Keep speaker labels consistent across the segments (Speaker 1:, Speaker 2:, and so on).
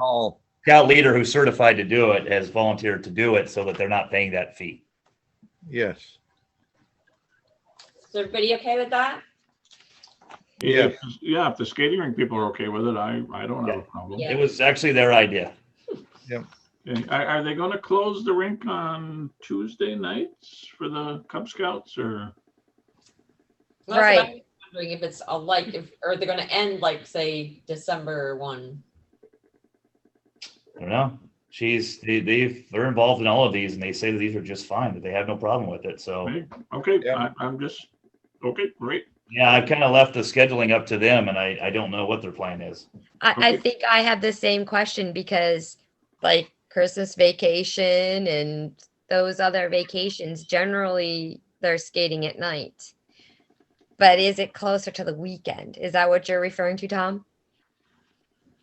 Speaker 1: all scout leader who's certified to do it has volunteered to do it so that they're not paying that fee.
Speaker 2: Yes.
Speaker 3: Is everybody okay with that?
Speaker 2: Yeah.
Speaker 4: If- Yeah, if the skating rink people are okay with it, I, I don't have a problem.
Speaker 3: Yeah.
Speaker 1: It was actually their idea.
Speaker 4: And Are, are they gonna close the rink on Tuesday nights for the Cub Scouts or?
Speaker 3: Well, that's what
Speaker 5: Right.
Speaker 3: I'm Wondering if it's a like, if, or they're gonna end like, say, December one.
Speaker 1: I don't know. She's, they, they've, they're involved in all of these and they say that these are just fine, that they have no problem with it. So,
Speaker 4: Right. Okay,
Speaker 2: Yeah.
Speaker 4: I, I'm just, okay, great.
Speaker 1: yeah, I've kind of left the scheduling up to them and I, I don't know what their plan is.
Speaker 5: I, I
Speaker 4: Okay.
Speaker 5: think I have the same question because like Christmas vacation and those other vacations, generally they're skating at night. But is it closer to the weekend? Is that what you're referring to, Tom?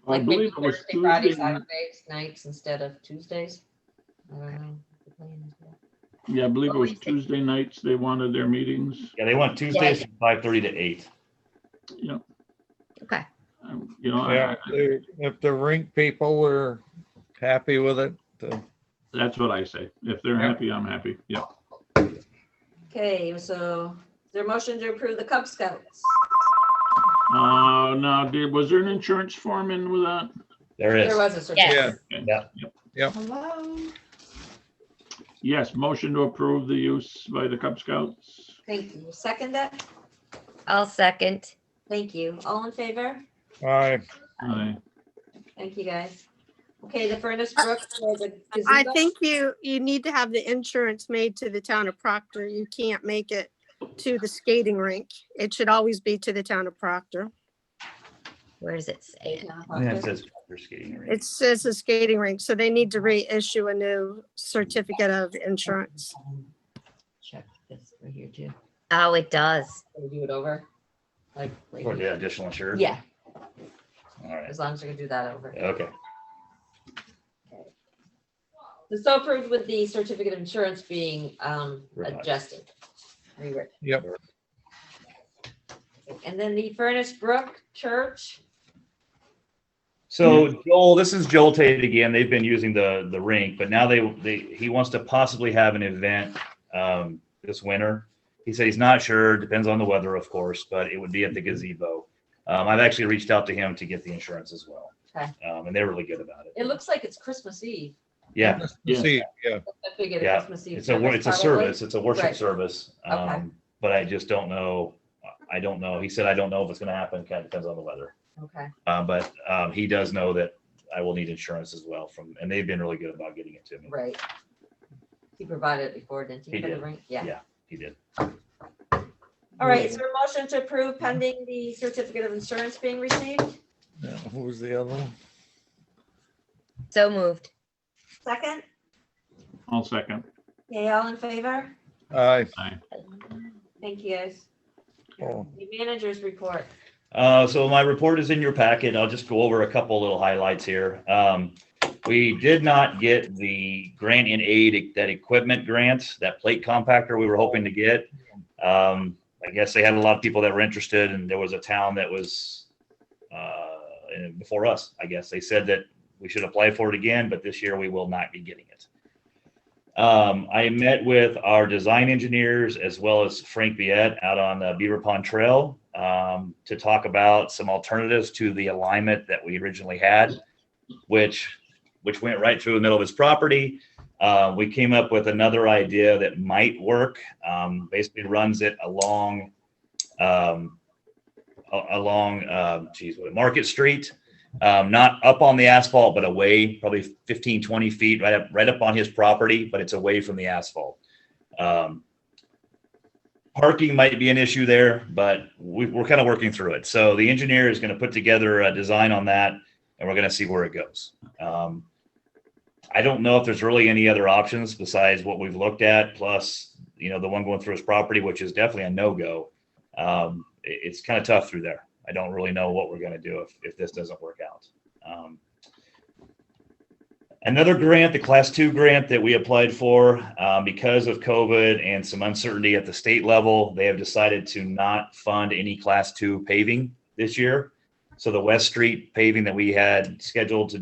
Speaker 4: I
Speaker 3: Like maybe
Speaker 4: believe it was
Speaker 3: Thursday, Friday,
Speaker 4: Tuesday. night-
Speaker 3: Saturdays, nights instead of Tuesdays. I don't know. The plan is that.
Speaker 4: Yeah, I believe it was
Speaker 5: Wednesday.
Speaker 4: Tuesday nights. They wanted their meetings.
Speaker 1: Yeah, they want Tuesdays from five thirty to eight.
Speaker 4: Yeah.
Speaker 5: Okay.
Speaker 4: Um, You know, I-
Speaker 2: Yeah,
Speaker 4: I-
Speaker 2: they- if the rink people were happy with it, the-
Speaker 4: that's what I say. If they're
Speaker 2: Yeah.
Speaker 4: happy, I'm happy. Yeah.
Speaker 3: Okay, so is there a motion to approve the Cub Scouts?
Speaker 4: Uh, now, did, was there an insurance form in with that?
Speaker 1: There
Speaker 3: There
Speaker 1: is.
Speaker 3: was a certificate.
Speaker 2: yeah,
Speaker 5: Yes.
Speaker 4: Okay.
Speaker 1: Yeah.
Speaker 4: Yep.
Speaker 3: Hello,
Speaker 4: Yes, motion to approve the use by the Cub Scouts.
Speaker 3: thank you. Second that,
Speaker 5: I'll second.
Speaker 3: thank you. All in favor?
Speaker 2: I,
Speaker 3: Um,
Speaker 4: Aye.
Speaker 3: Thank you, guys. Okay, the Furnace Brook for the
Speaker 6: I
Speaker 3: gazebo?
Speaker 6: think you, you need to have the insurance made to the town of Proctor. You can't make it to the skating rink. It should always be to the town of Proctor.
Speaker 5: Where does it say it?
Speaker 1: Yeah, it says they're skating rink.
Speaker 6: It says a skating rink, so they need to reissue a new certificate of insurance.
Speaker 3: Check this right here too.
Speaker 5: Oh, it does.
Speaker 3: Review it over. Like, right
Speaker 1: Or
Speaker 3: here.
Speaker 1: the additional insurance.
Speaker 3: yeah,
Speaker 1: All right.
Speaker 3: as long as you can do that over.
Speaker 1: Okay.
Speaker 3: So approved with the certificate of insurance being um
Speaker 1: Revised.
Speaker 3: adjusted. rewritten.
Speaker 2: Yep.
Speaker 3: And then the Furnace Brook Church,
Speaker 1: So Joel, this is Joel Tate again. They've been using the the rink, but now they they he wants to possibly have an event um, this winter. He said he's not sure. Depends on the weather, of course, but it would be at the
Speaker 3: Mm-hmm.
Speaker 1: gazebo. Um, I've actually reached out to him to get the insurance as well,
Speaker 3: Okay.
Speaker 1: um, and they're really good about it.
Speaker 3: it looks like it's Christmas Eve.
Speaker 1: yeah,
Speaker 4: Yeah.
Speaker 2: see, yeah,
Speaker 3: I figured
Speaker 1: Yeah,
Speaker 3: it's Christmas Eve.
Speaker 1: it's a
Speaker 3: service
Speaker 1: it's a
Speaker 3: probably.
Speaker 1: service. It's a worship
Speaker 3: Right.
Speaker 1: service. Um,
Speaker 3: Okay.
Speaker 1: But I just don't know. I don't know. He said I don't know if it's going to happen. Kind of depends on the weather.
Speaker 3: Okay,
Speaker 1: Uh, but um, he does know that I will need insurance as well from, and they've been really good about getting it to me.
Speaker 3: right. He provided it before, didn't he?
Speaker 1: He
Speaker 3: for the
Speaker 1: did.
Speaker 3: rink? Yeah.
Speaker 1: He did.
Speaker 3: All right, is there a motion to approve pending the certificate of insurance being received?
Speaker 2: Now, who was the other one?
Speaker 5: So moved.
Speaker 3: Second?
Speaker 4: I'll second.
Speaker 3: Okay, all in favor?
Speaker 2: I,
Speaker 3: Thank you, guys.
Speaker 2: Oh.
Speaker 3: The managers report.
Speaker 1: Uh, so my report is in your packet. I'll just go over a couple little highlights here. Um, we did not get the grant in aid, that equipment grant, that plate compactor we were hoping to get. Um, I guess they had a lot of people that were interested and there was a town that was, uh, and before us, I guess. They said that we should apply for it again, but this year we will not be getting it. Um, I met with our design engineers as well as Frank Viet out on the Beaver Pond Trail um, to talk about some alternatives to the alignment that we originally had, which which went right through the middle of his property. Uh, we came up with another idea that might work. Um, basically, runs it along um, a- along um, geez, what, Market Street um, not up on the asphalt, but away probably 15, 20 feet, right up, right up on his property, but it's away from the asphalt. Um, parking might be an issue there, but we, we're kind of working through it. So the engineer is going to put together a design on that and we're going to see where it goes. Um, I don't know if there's really any other options besides what we've looked at, plus, you know, the one going through his property, which is definitely a no-go. Um, it- it's kind of tough through there. I don't really know what we're gonna do if, if this doesn't work out. Um, Another grant, the class two grant that we applied for, um, because of COVID and some uncertainty at the state level, they have decided to not fund any class two paving this year. So the West Street paving that we had scheduled to do.